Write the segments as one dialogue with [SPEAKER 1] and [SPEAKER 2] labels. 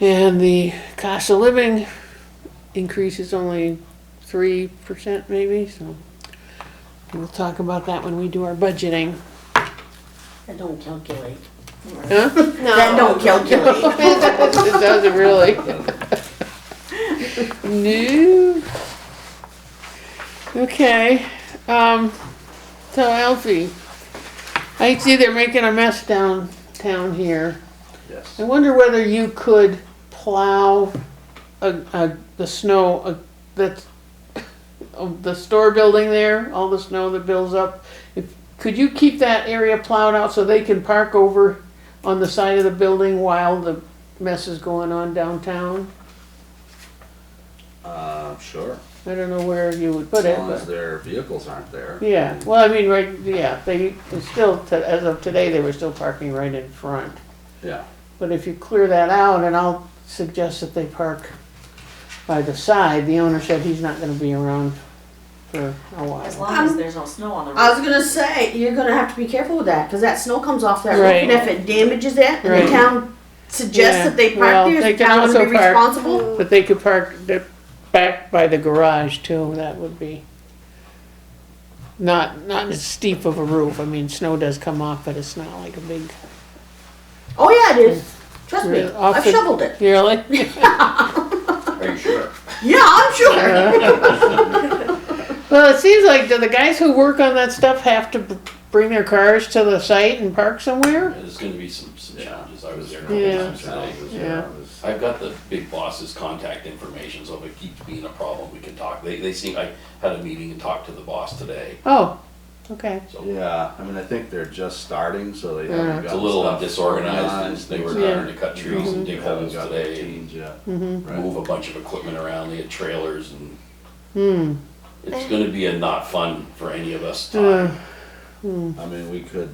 [SPEAKER 1] And the cost of living increase is only three percent maybe, so we'll talk about that when we do our budgeting.
[SPEAKER 2] That don't calculate.
[SPEAKER 1] Huh?
[SPEAKER 2] That don't calculate.
[SPEAKER 1] It doesn't really. No. Okay, um, so Alfie, I see they're making a mess downtown here.
[SPEAKER 3] Yes.
[SPEAKER 1] I wonder whether you could plow a, a, the snow, uh that's, of the store building there, all the snow that builds up. If, could you keep that area plowed out so they can park over on the side of the building while the mess is going on downtown?
[SPEAKER 3] Uh, sure,
[SPEAKER 1] I don't know where you would
[SPEAKER 3] as
[SPEAKER 1] put it,
[SPEAKER 3] long as
[SPEAKER 1] but,
[SPEAKER 3] their vehicles aren't there.
[SPEAKER 1] yeah, well, I mean, right, yeah, they, they still, t- as of today, they were still parking right in front.
[SPEAKER 3] Yeah,
[SPEAKER 1] But if you clear that out, and I'll suggest that they park by the side, the owner said he's not gonna be around for a
[SPEAKER 4] As
[SPEAKER 1] while.
[SPEAKER 4] long as there's no snow on the
[SPEAKER 2] I
[SPEAKER 1] uh,
[SPEAKER 4] road.
[SPEAKER 2] was gonna say, you're gonna have to be careful with that, cause that snow comes off that roof, and if
[SPEAKER 1] Right.
[SPEAKER 2] it damages it, and
[SPEAKER 1] Right.
[SPEAKER 2] the town suggests
[SPEAKER 1] Yeah,
[SPEAKER 2] that they
[SPEAKER 1] well,
[SPEAKER 2] park there,
[SPEAKER 1] they
[SPEAKER 2] is the
[SPEAKER 1] can
[SPEAKER 2] town gonna
[SPEAKER 1] also
[SPEAKER 2] be
[SPEAKER 1] park-
[SPEAKER 2] responsible?
[SPEAKER 1] But they could park the- back by the garage too, that would be not, not as steep of a roof, I mean, snow does come off, but it's not like a big,
[SPEAKER 2] Oh, yeah, it is, trust me,
[SPEAKER 1] Really? Off
[SPEAKER 2] I've
[SPEAKER 1] the-
[SPEAKER 2] shoveled it,
[SPEAKER 1] really?
[SPEAKER 3] are you sure?
[SPEAKER 2] yeah, I'm sure.
[SPEAKER 1] Well, it seems like, do the guys who work on that stuff have to b- bring their cars to the site and park somewhere?
[SPEAKER 5] There's gonna be some, some challenges, I was there a couple
[SPEAKER 1] Yeah.
[SPEAKER 5] times today.
[SPEAKER 1] Yeah.
[SPEAKER 5] I've got the big boss's contact information, so if it keeps being a problem, we can talk, they, they seem, I had a meeting and talked to the boss today,
[SPEAKER 1] Oh, okay,
[SPEAKER 5] so
[SPEAKER 3] Yeah, I mean, I think they're just starting, so they
[SPEAKER 1] Yeah.
[SPEAKER 3] haven't got
[SPEAKER 5] it's a little
[SPEAKER 3] stuff
[SPEAKER 5] disorganized,
[SPEAKER 3] organized,
[SPEAKER 5] and they were
[SPEAKER 1] Yeah. Mm-hmm.
[SPEAKER 5] trying to cut trees and dig
[SPEAKER 3] They haven't
[SPEAKER 5] holes
[SPEAKER 3] got
[SPEAKER 5] today, and
[SPEAKER 3] routines yet.
[SPEAKER 1] mhm,
[SPEAKER 3] Right.
[SPEAKER 5] move a bunch of equipment around, they had trailers, and
[SPEAKER 1] hmm.
[SPEAKER 5] it's gonna be a not fun for any of us
[SPEAKER 1] Uh,
[SPEAKER 5] time.
[SPEAKER 3] I mean, we could,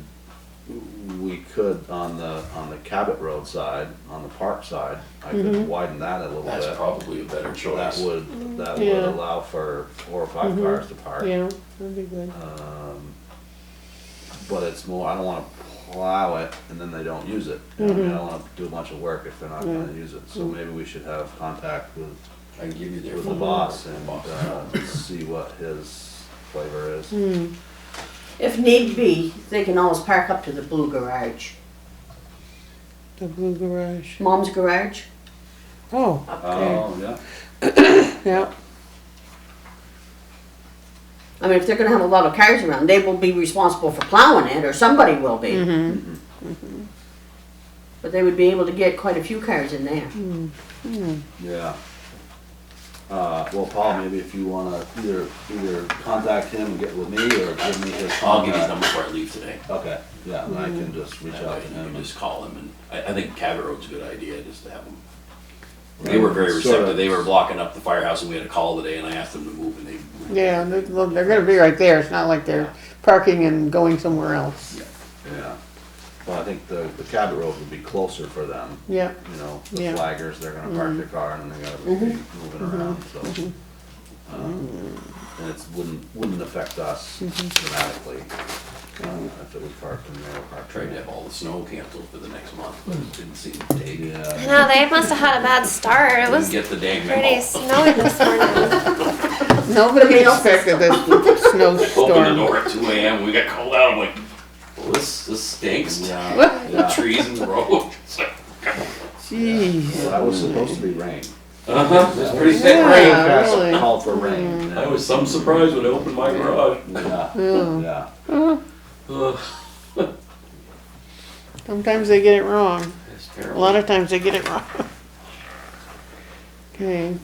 [SPEAKER 3] we could on the, on the Cabot Road side, on the park side, I
[SPEAKER 1] Mm-hmm.
[SPEAKER 3] could widen that a little
[SPEAKER 5] That's
[SPEAKER 3] bit.
[SPEAKER 5] probably a better
[SPEAKER 3] That
[SPEAKER 5] choice.
[SPEAKER 3] would, that would
[SPEAKER 1] Yeah.
[SPEAKER 3] allow for four or five
[SPEAKER 1] Mhm.
[SPEAKER 3] cars to park.
[SPEAKER 1] Yeah, that'd be good.
[SPEAKER 3] Um, but it's more, I don't wanna plow it and then they don't use it. You know what I mean, I don't wanna do a bunch of work if they're not gonna use it, so maybe we should have contact with,
[SPEAKER 5] I can give you their.
[SPEAKER 3] with the
[SPEAKER 5] phone
[SPEAKER 3] boss
[SPEAKER 5] number.
[SPEAKER 3] and,
[SPEAKER 5] Boss.
[SPEAKER 3] uh, see what his flavor is.
[SPEAKER 1] Hmm.
[SPEAKER 2] If need be, they can always park up to the blue garage,
[SPEAKER 1] the blue garage.
[SPEAKER 2] mom's garage,
[SPEAKER 1] Oh,
[SPEAKER 3] Oh, yeah,
[SPEAKER 1] yeah,
[SPEAKER 2] I mean, if they're gonna have a lot of cars around, they will be responsible for plowing it, or somebody will be.
[SPEAKER 1] mm-hmm,
[SPEAKER 2] But they would be able to get quite a few cars in there.
[SPEAKER 3] yeah. Uh, well, Paul, maybe if you wanna either, either contact him and get with me or give me his
[SPEAKER 5] I'll give you
[SPEAKER 3] contact.
[SPEAKER 5] his number before I leave today.
[SPEAKER 3] Okay, yeah, and I can just reach
[SPEAKER 5] That way
[SPEAKER 3] out to
[SPEAKER 5] you
[SPEAKER 3] him.
[SPEAKER 5] can
[SPEAKER 3] and-
[SPEAKER 5] just call them, and I, I think Cabot Road's a good idea, just to have them. They were very
[SPEAKER 3] Sorta-
[SPEAKER 5] receptive, they were blocking up the firehouse, and we had a call today, and I asked them to move, and they. moved.
[SPEAKER 1] yeah, they- well, they're gonna be right there, it's not like they're parking and going somewhere else.
[SPEAKER 3] Yeah, well, I think the, the Cabot Road would be closer for them,
[SPEAKER 1] Yeah,
[SPEAKER 3] you know, the
[SPEAKER 1] Yeah. Mm-hmm.
[SPEAKER 3] flaggers, they're gonna park their car and they gotta be moving around, so. um, And it wouldn't, wouldn't affect us
[SPEAKER 1] Mm-hmm.
[SPEAKER 3] dramatically, uh, if it was parked in there or parked
[SPEAKER 5] Tried to
[SPEAKER 3] in
[SPEAKER 5] have all the snow canceled for the next month, but it didn't seem to take.
[SPEAKER 3] Yeah,
[SPEAKER 6] No, they must have had a bad start. It
[SPEAKER 5] Didn't
[SPEAKER 6] was
[SPEAKER 5] get the dang
[SPEAKER 6] pretty
[SPEAKER 5] memo.
[SPEAKER 6] snowy this morning.
[SPEAKER 1] nobody expected this
[SPEAKER 5] Opened the
[SPEAKER 1] snowstorm.
[SPEAKER 5] door at two AM, we got called out, I'm like, well, this, this stinks. The
[SPEAKER 3] yeah,
[SPEAKER 5] trees in the road, it's like,
[SPEAKER 1] Jeez,
[SPEAKER 3] well, that was supposed to be rain.
[SPEAKER 5] uh-huh, it's pretty thick rain.
[SPEAKER 1] yeah,
[SPEAKER 3] That's
[SPEAKER 1] Ah, really. Mm.
[SPEAKER 3] Called for rain.
[SPEAKER 5] I was some surprised when I opened my garage.
[SPEAKER 3] Yeah,
[SPEAKER 1] Yeah.
[SPEAKER 3] yeah,
[SPEAKER 5] Ugh,
[SPEAKER 1] Sometimes they get it wrong,
[SPEAKER 5] It's
[SPEAKER 1] a
[SPEAKER 5] terrible.
[SPEAKER 1] lot of times they get it wrong. Okay.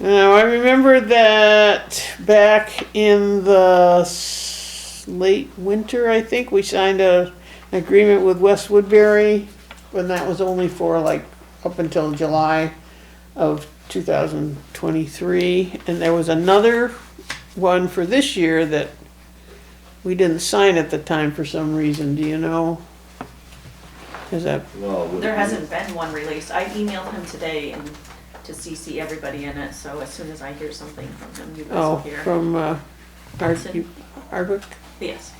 [SPEAKER 1] Now, I remember that back in the s- late winter, I think, we signed a, an agreement with West Woodbury, and that was only for like up until July of 2023. And there was another one for this year that we didn't sign at the time for some reason. Do you know? Is that
[SPEAKER 3] well. we-
[SPEAKER 4] There hasn't been one released. I emailed him today and to CC everybody in it, so as soon as I hear something from him, you guys
[SPEAKER 1] Oh,
[SPEAKER 4] will hear.
[SPEAKER 1] from uh, Ar-
[SPEAKER 4] Hudson?
[SPEAKER 1] you- Arbuck,
[SPEAKER 4] Yes,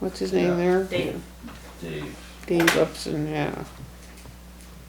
[SPEAKER 1] what's his name
[SPEAKER 3] Yeah.
[SPEAKER 1] there?
[SPEAKER 4] Dave.
[SPEAKER 3] Dave,
[SPEAKER 1] Dave Upson, yeah.